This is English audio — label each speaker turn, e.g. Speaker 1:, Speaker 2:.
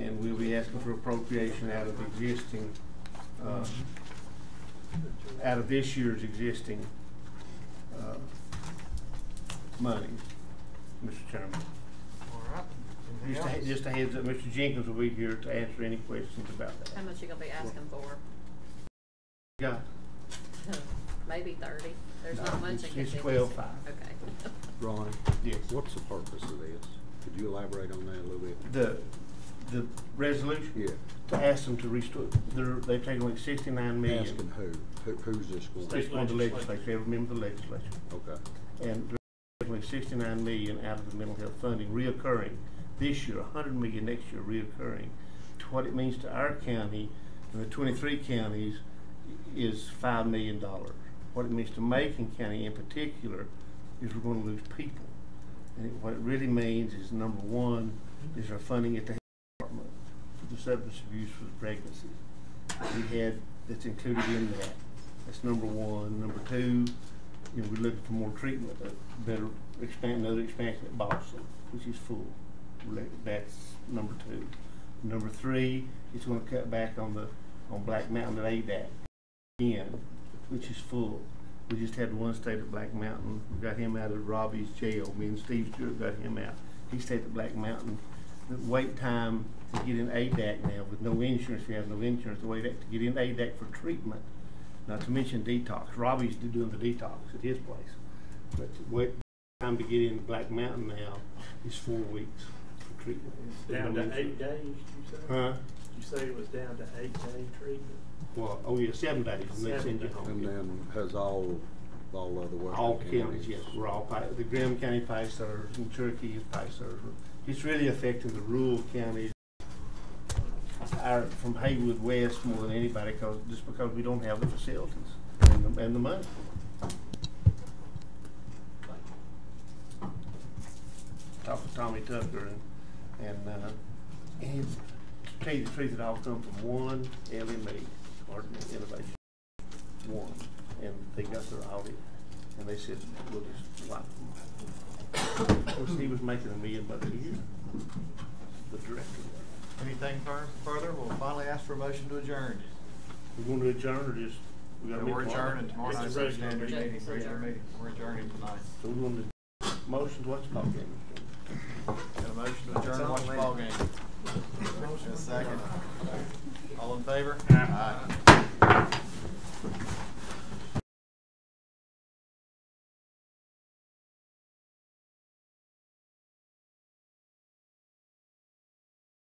Speaker 1: asking for appropriation out of existing, uh, out of this year's existing, uh, money, Mr. Chairman.
Speaker 2: All right. Anything
Speaker 1: Just a,
Speaker 2: else?
Speaker 1: just a heads up, Mr. Jenkins will be here to answer any questions about that.
Speaker 3: How much you gonna be asking for?
Speaker 1: Yeah,
Speaker 3: Maybe thirty? There's
Speaker 1: No,
Speaker 3: not much I
Speaker 1: it's-
Speaker 3: can do.
Speaker 1: it's
Speaker 3: this
Speaker 1: 12.5.
Speaker 3: year. Okay.
Speaker 4: Ron,
Speaker 1: yes.
Speaker 4: what's the purpose of this? Could you elaborate on that a little bit?
Speaker 1: The, the resolution?
Speaker 4: Yeah,
Speaker 1: To ask them to restore, they're, they've taken like sixty-nine
Speaker 4: asking
Speaker 1: million.
Speaker 4: who, who, who's this going
Speaker 1: It's
Speaker 4: to?
Speaker 1: on the legislature, they remember the legislature.
Speaker 4: Okay,
Speaker 1: and definitely sixty-nine million out of the mental health funding reoccurring this year, hundred million next year reoccurring. To what it means to our county and the twenty-three counties is five million dollars. What it means to Macon County in particular is we're gonna lose people. And it- what it really means is, number one, is our funding at the health department for the substance abuse for the pregnancy. that We had, that's included in that. That's number one. Number two, you know, we're looking for more treatment, uh, better expand, another expansion at Boston, which is full. We're look- That's number two. Number three, it's gonna cut back on the, on Black Mountain at ADAC again, which is full. We just had one state at Black Mountain, we got him out of Robbie's jail, me and Steve Stewart got him out. He stayed at Black Mountain. The wait time to get in ADAC now with no insurance, if you have no insurance, the wait to get in ADAC for treatment not to mention detox. Robbie's do- doing the detox at his place. But the wait time to get in Black Mountain now is four weeks for treatment.
Speaker 5: Down to eight days, you say?
Speaker 1: Huh?
Speaker 5: You say it was down to eight day treatment?
Speaker 1: Well, oh yeah, seven days and they send you
Speaker 5: Seven
Speaker 1: home.
Speaker 4: and then has all, all other working
Speaker 1: All
Speaker 4: counties?
Speaker 1: counties, yes, we're all, pi- the Graham County Pisers and Cherokee is Pisers. It's really affecting the rural counties. Our, from Haywood West more than anybody, cause, just because we don't have the facilities and the, and the money. Talked to Tommy Tucker and, and, uh, and to tell you the truth, it all come from one E, LME, Ardent Innovation, one. And they got their audit and they said, we'll just wipe them. Of course, he was making a million bucks a year, the director.
Speaker 2: Anything fur- further? We'll finally ask for a motion to adjourn.
Speaker 1: We're going to adjourn or just, we got to meet
Speaker 2: We're
Speaker 1: tomorrow?
Speaker 2: adjourning tomorrow
Speaker 5: It's a
Speaker 2: night's
Speaker 5: regular
Speaker 2: standard
Speaker 5: meeting.
Speaker 2: meeting, regular meeting. We're adjourning tonight.
Speaker 1: So we're going to, motion, what's called then?
Speaker 2: Got a motion to adjourn, watch the ball game. And a second. All in favor? Aye.